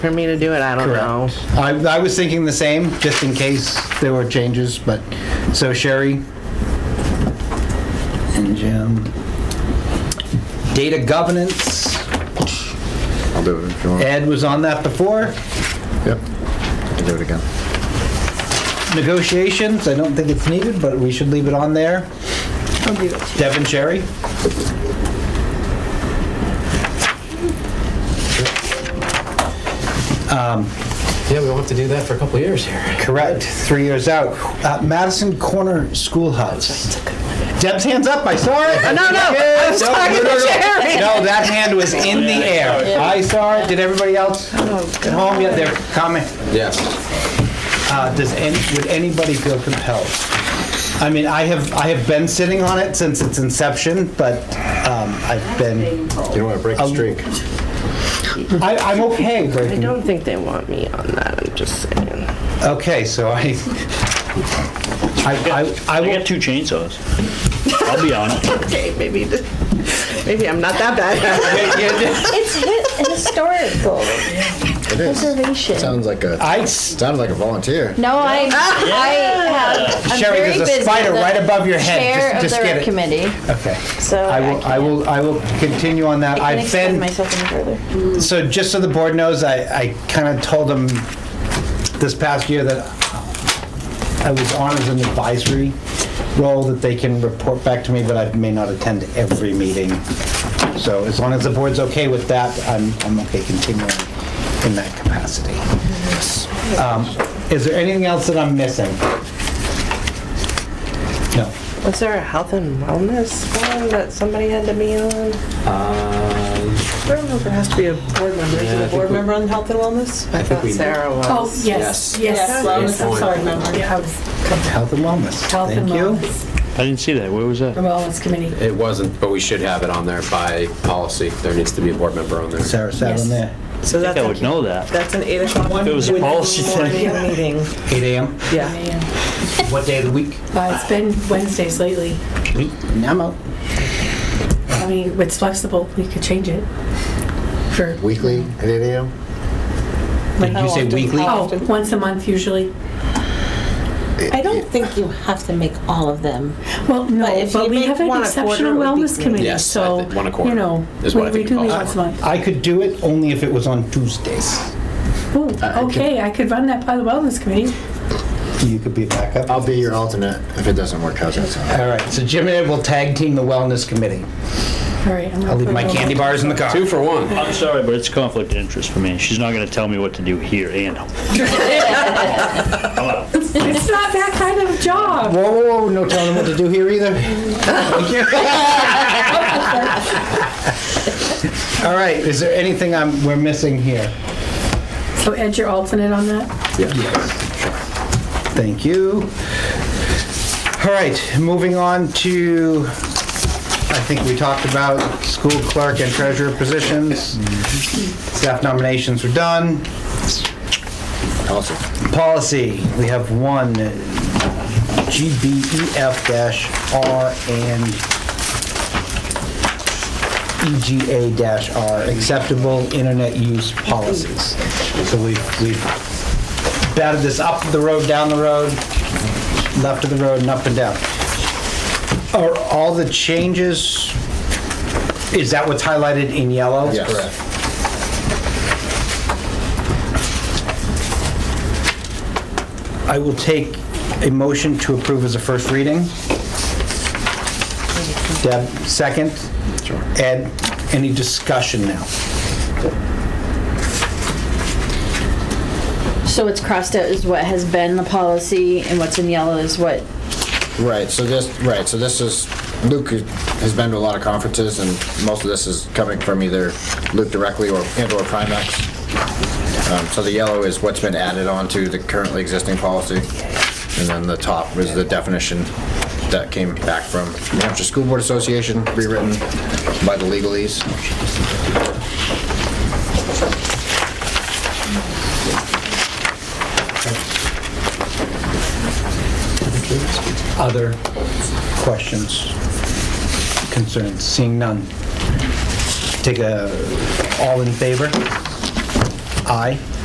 for me to do it? I don't know. I, I was thinking the same, just in case there were changes, but, so Sherry and Jim. Data governance, I'll do it if you want. Ed was on that before. Yep. I'll do it again. Negotiations, I don't think it's needed, but we should leave it on there. I'll do it. Deb and Sherry? Yeah, we won't have to do that for a couple of years here. Correct, three years out. Uh, Madison Corner Schoolhouse. Deb's hands up, I saw it. No, no, I was talking to Sherry. No, that hand was in the air. I saw it, did everybody else at home get their comment? Yes. Uh, Does, any- would anybody feel compelled? I mean, I have, I have been sitting on it since its inception, but um, I've been, You don't want to break the streak. I- I'm okay I breaking don't think they want me on that. I'm just saying. Okay, so I, I, I, I I will, got two chainsaws. I'll be on it. Okay, maybe maybe I'm not that bad. It's hi- historical It is. preservation. Sounds like a, I, s- sounds like a volunteer. No, I, I have, I'm Sherry, very there's a busy. spider The right above your head. Chair Just- of Just the get rec it. committee, Okay. so I will, I can't- will, I will continue on that. I can I've extend been, myself any further. so just so the board knows, I, I kind of told them this past year that I was on as an advisory role, that they can report back to me, but I may not attend every meeting. So as long as the board's okay with that, I'm, I'm okay continuing in that capacity. Um, Is there anything else that I'm missing? No. Was there a health and wellness one that somebody had to be on? Uh, I don't know if it has to be a board member. Yeah, I Is it a think board we- member on health and wellness? I think thought we- Sarah was. Oh, Yes. yes, yes, wellness, I'm Yes. sorry, member. Health and wellness. Health and Thank you. wellness. I didn't see that. Where was The that? wellness committee. it wasn't, but we should have it on there by policy. There needs to be a board member on there. Sarah sat on Yes. there. So I think I would know that. That's an eight o'clock. If it was a policy thing. morning meeting. 8 a.m. Yeah. What day of the week? Uh, It's been Wednesdays lately. I'm out. I mean, it's flexible, we could change it for, Weekly at 8 a.m.? Did you say weekly? oh, once a month usually. Oh, I don't think you have to make all of them. Well, But no, if but you we make have an one a quarter, exceptional it would be wellness great. committee, Yes, I so, think one a quarter you know, is what I we we think do you meet call it. once a month. I could do it only if it was on Tuesdays. Ooh, okay, I could run that by the wellness committee. You could be a backup. I'll be your alternate if it doesn't work. How's that sound? All right, so Jim and Ed will tag team the wellness committee. All right. I'm I'll leave my candy bars in the car. Two for one. I'm sorry, but it's conflict of interest for me. She's not gonna tell me what to do here and It's not that kind of job. Whoa, whoa, whoa, no telling them what to do here either. Thank you. All right, is there anything I'm, we're missing here? So Ed, you're alternate on that? Thank you. All right, moving on to, I think we talked about school clerk and treasurer positions. Staff nominations are done. Awesome. Policy, we have one, E GBEF-R and E EGA-R, acceptable internet use policies. So we've we've batted this up the road, down the road, left of the road, and up and down. Are all the changes, is that what's highlighted in yellow? Yes. I will take a motion to approve as a first reading. Deb, second. Ed, any discussion now? So what's crossed out is what has been the policy, and what's in yellow is what Right, so this, right, so this is, Luke has been to a lot of conferences, and most of this is coming from either Luke directly or, and/or Primex. Um, So the yellow is what's been added on to the currently existing policy, and then the top is the definition that came back from New Hampshire School Board Association, rewritten by the legalese. Other questions, concerns? Seeing none. Take a, all in favor? Aye.